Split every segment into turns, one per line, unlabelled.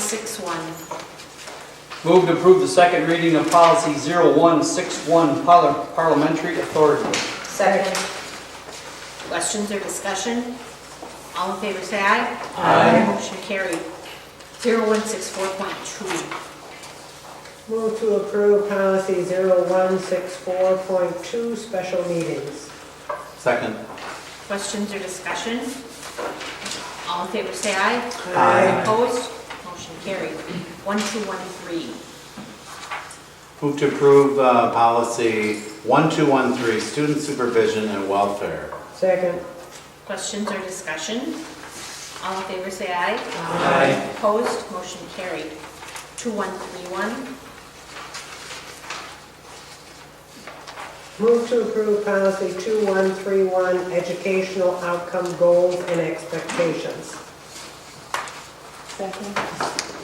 0161.
Move to approve the second reading of policy 0161, parli- parliamentary authority.
Second. Questions or discussion? All in favor, say aye.
Aye.
Motion carried. 0164.2.
Move to approve policy 0164.2, special meetings.
Second.
Questions or discussion? All in favor, say aye.
Aye.
Opposed? Motion carried. 1213.
Move to approve uh, policy 1213, student supervision and welfare.
Second,
Questions or discussion? All in favor, say aye.
Aye.
Opposed? Motion carried. 2131.
move to approve policy 2131, educational outcome goals and expectations.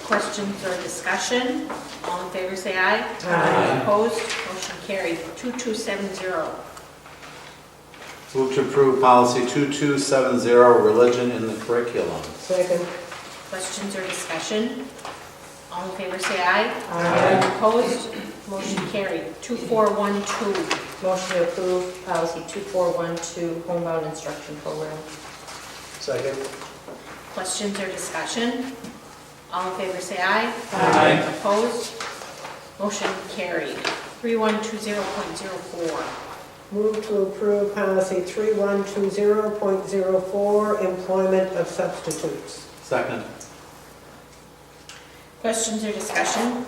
Questions or discussion? All in favor, say aye.
Aye.
Opposed, motion carried. 2270.
Move to approve policy 2270, religion in the curriculum.
Second,
Questions or discussion? All in favor, say aye.
Aye.
Opposed, motion carried. 2412.
Motion to approve policy 2412, homebound instruction program.
Second.
Questions or discussion? All in favor, say aye.
Aye.
Opposed, motion carried. 3120.04.
move to approve policy 3120.04, employment of substitutes.
Second.
Questions or discussion?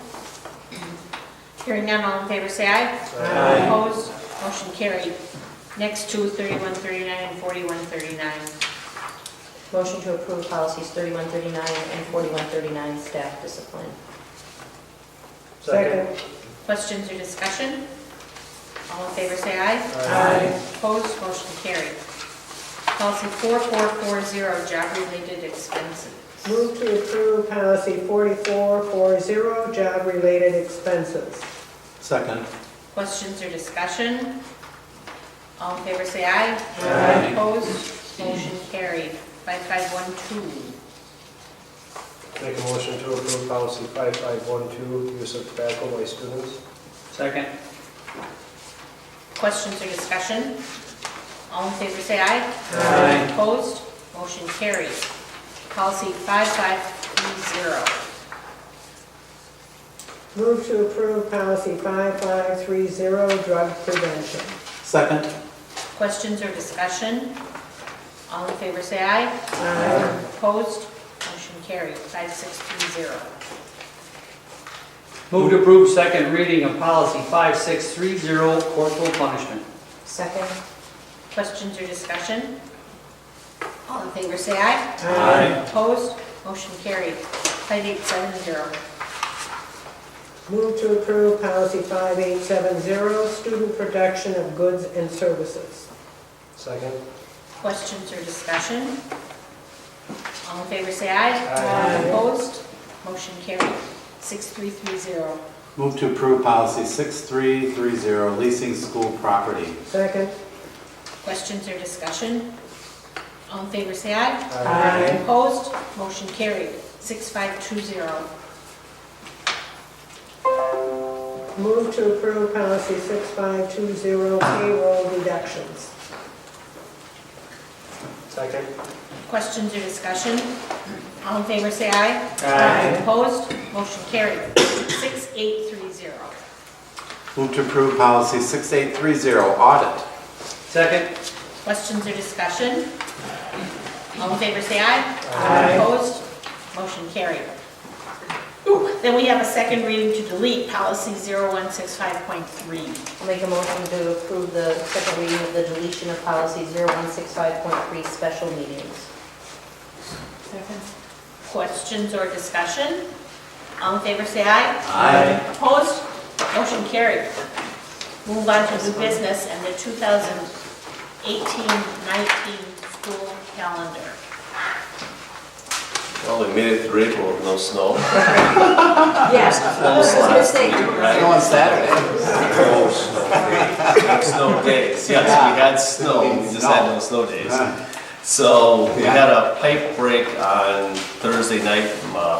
Hearing none, all in favor, say aye.
Aye.
Opposed, motion carried. Next two, 3139 and 4139.
Motion to approve policies 3139 and 4139, staff discipline.
Second,
Questions or discussion? All in favor, say aye.
Aye.
Opposed, motion carried. Policy 4440, job-related expenses.
move to approve policy 4440, job-related expenses.
Second.
Questions or discussion? All in favor, say aye.
Aye.
Opposed, motion carried. 5512.
Make a motion to approve policy 5512, use of tobacco by students.
Second.
Questions or discussion? All in favor, say aye.
Aye.
Opposed? Motion carries. Policy 5530.
Move to approve policy 5530, drug prevention.
Second.
Questions or discussion? All in favor, say aye.
Aye.
Opposed? Motion carries. 5630.
Move to approve second reading of policy 5630, corporal punishment.
Second.
Questions or discussion? All in favor, say aye.
Aye.
Opposed? Motion carries. 5870.
Move to approve policy 5870, student production of goods and services.
Second.
Questions or discussion? All in favor, say aye.
Aye.
Opposed? Motion carried. 6330.
Move to approve policy 6330, leasing school property.
Second.
Questions or discussion? All in favor, say aye.
Aye.
Opposed? Motion carried. 6520.
Move to approve policy 6520, payroll reductions.
Second.
Questions or discussion? All in favor, say aye.
Aye.
Opposed? Motion carried. 6830.
Move to approve policy 6830, audit.
Second.
Questions or discussion? All in favor, say aye.
Aye.
Opposed? Motion carried. Ooh, Then we have a second reading to delete policy 0165.3.
I'll make a motion to approve the second reading of the deletion of policy 0165.3, special meetings.
Questions or discussion? All in favor, say aye.
Aye.
Opposed? Motion carried. Move on to new business and the 2018-19 school calendar.
Well, we made it through April with no snow.
Yes. Oh, I was gonna say,
Go on Saturday.
No snow. Snow days, yes, we had snow, we just had no snow days. So we had a pipe break on Thursday night from uh,